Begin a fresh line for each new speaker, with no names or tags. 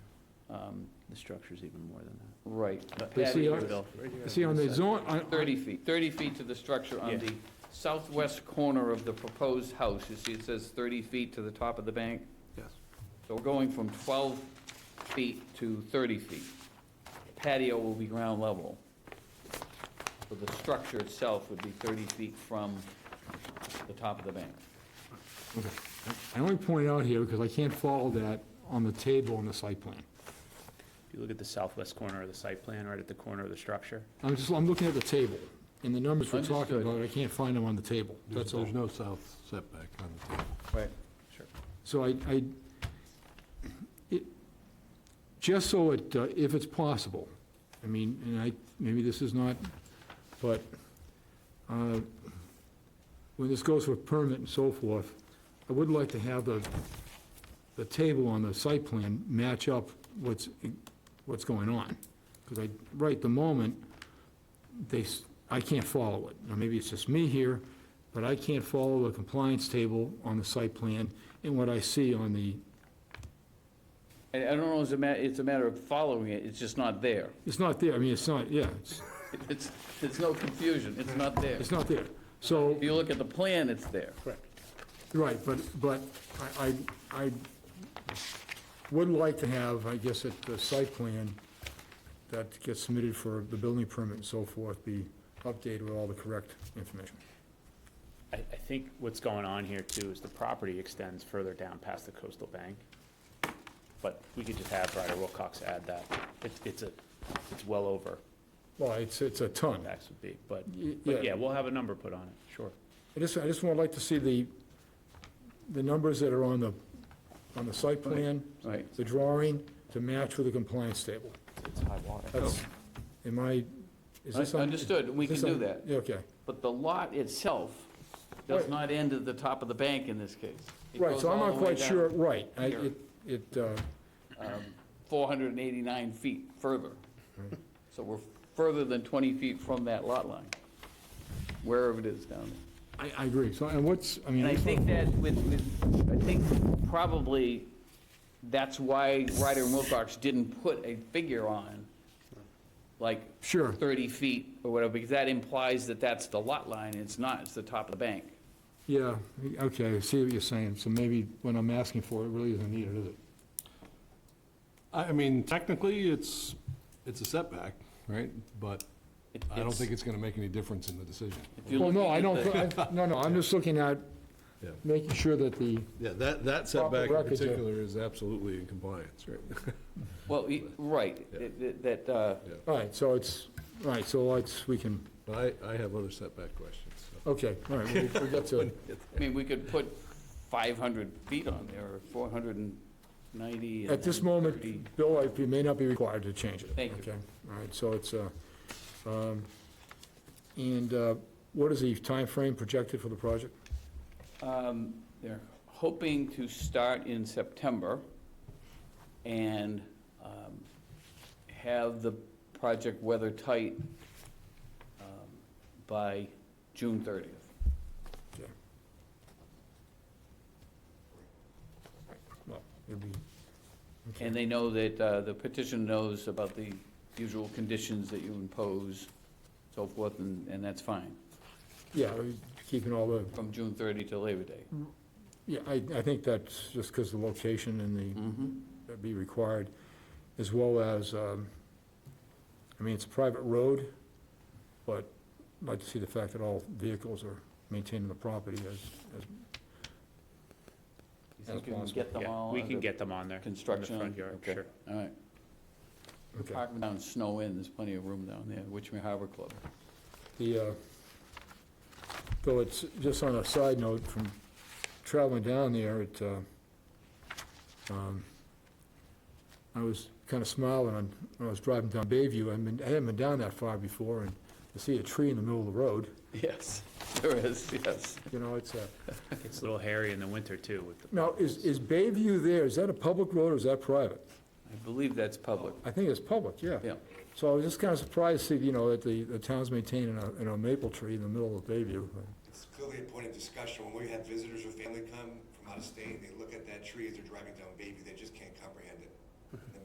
The structure's even more than that.
Right.
But see,
Added
on-
to-
See, on the zone, on- on-
30 feet, 30 feet to the structure on
Yeah.
the southwest corner of the proposed house. You see, it says 30 feet to the top of the bank?
Yes.
So we're going from 12 feet to 30 feet. Patio will be ground level. So the structure itself would be 30 feet from the top of the bank.
I only point it out here because I can't follow that on the table on the site plan.
If you look at the southwest corner of the site plan, right at the corner of the structure,
I'm just, I'm looking at the table, and the numbers we're talking
Understood.
about, I can't find them on the table,
There's
that's all.
there's no south setback on the table.
Right.
So I, I, it, just so it, uh, if it's possible, I mean, and I, maybe this is not, but, uh, when this goes for permit and so forth, I would like to have the, the table on the site plan match up what's, what's going on. Because I, right at the moment, they, s- I can't follow it. Now, maybe it's just me here, but I can't follow the compliance table on the site plan and what I see on the,
And I don't know, it's a ma, it's a matter of following it, it's just not there.
it's not there, I mean, it's not, yeah, it's,
It's, it's no confusion, it's not there.
it's not there. So,
If you look at the plan, it's there.
right, but, but I, I, I would like to have, I guess, at the site plan that gets submitted for the building permit and so forth, be updated with all the correct information.
I, I think what's going on here too is the property extends further down past the coastal bank. But we could just have Ryder Wilcox add that. It's, it's a, it's well over
Well, it's, it's a ton.
max would be, but,
Y-
but yeah, we'll have a number put on it, sure.
I just, I just would like to see the, the numbers that are on the, on the site plan,
Right.
the drawing, to match with the compliance table.
It's high water.
That's, am I, is this? on-
Understood, we
is this
can do
on-
that.
Yeah, okay.
But the lot itself does
Right.
not end at the top of the bank in this case. It
Right,
goes
so I'm
all
not
the way
quite sure,
down,
right. I-
here.
It, it, uh,
um, 489 feet further. So we're further than 20 feet from that lot line, wherever it is down there.
I, I agree. So, and what's, I mean.
And I
just
think
wanna-
that with, with, I think probably that's why Ryder and Wilcox didn't put a figure on, like
Sure,
30 feet or whatever, because that implies that that's the lot line, it's not, it's the top of the bank.
yeah, okay, I see what you're saying. So maybe when I'm asking for it, it really isn't needed, is it?
I I mean, technically, it's, it's a setback, right? But
It-
I don't
it's-
think it's going to make any difference in the decision.
if you're
Well, no,
looking
I
at
don't,
the-
thi- I- no, no, I'm just looking at
Yeah.
making sure that the,
Yeah, that, that
setback
setback
in
in
record, yeah.
particular
particular
is absolutely in compliance, right?
Well, y- right,
Yeah.
it- it- that, uh,
all right, so it's, all right, so it's, we can,
But I, I have other setback questions,
okay, all right, we'll we'll get to it.
I mean, we could put 500 feet on there, or 490. and
At this
then
moment,
30.
Bill, I- you may not be required to change it.
Thank you.
Okay, all right, so it's, uh, um, and uh, what is the time frame projected for the project?
Um, They're hoping to start in September and um, have the project weather tight um, by June 30th.
Well, it'll be, okay.
And they know that, uh, the petition knows about the usual conditions that you impose, so forth, and, and that's fine,
Yeah, we're keeping all the,
from June 30 to Labor Day.
yeah, I, I think that's just because the location and the,
Mm-hmm.
that'd be required, as well as, um, I mean, it's a private road, but I'd like to see the fact that all vehicles are maintaining the property as, as
You think
As
you can
possible.
get them
Yeah,
all?
we
under
can get them on there. in the
Construction?
front yard,
Okay,
sure.
All right.
Okay.
Park down Snow Inn, there's plenty of room down there, Witchman Harbor Club.
The, uh, though it's, just on a side note, from traveling down there, it, uh, um, I was kind of smiling on- when I was driving down Bayview. I mean, I hadn't been down that far before, and to see a tree in the middle of the road,
Yes, there is, yes.
you know, it's a,
It's a little hairy in the winter too with the.
now, is, is Bayview there, is that a public road or is that private?
I believe that's public,
I think it's public, yeah.
yeah.
So I was just kind of surprised to see, you know, that the, the town's maintaining a, you know, maple tree in the middle of Bayview.
It's clearly a point of discussion. When we have visitors or family come from out of state, they look at that tree as they're driving down Bayview, they just can't comprehend it.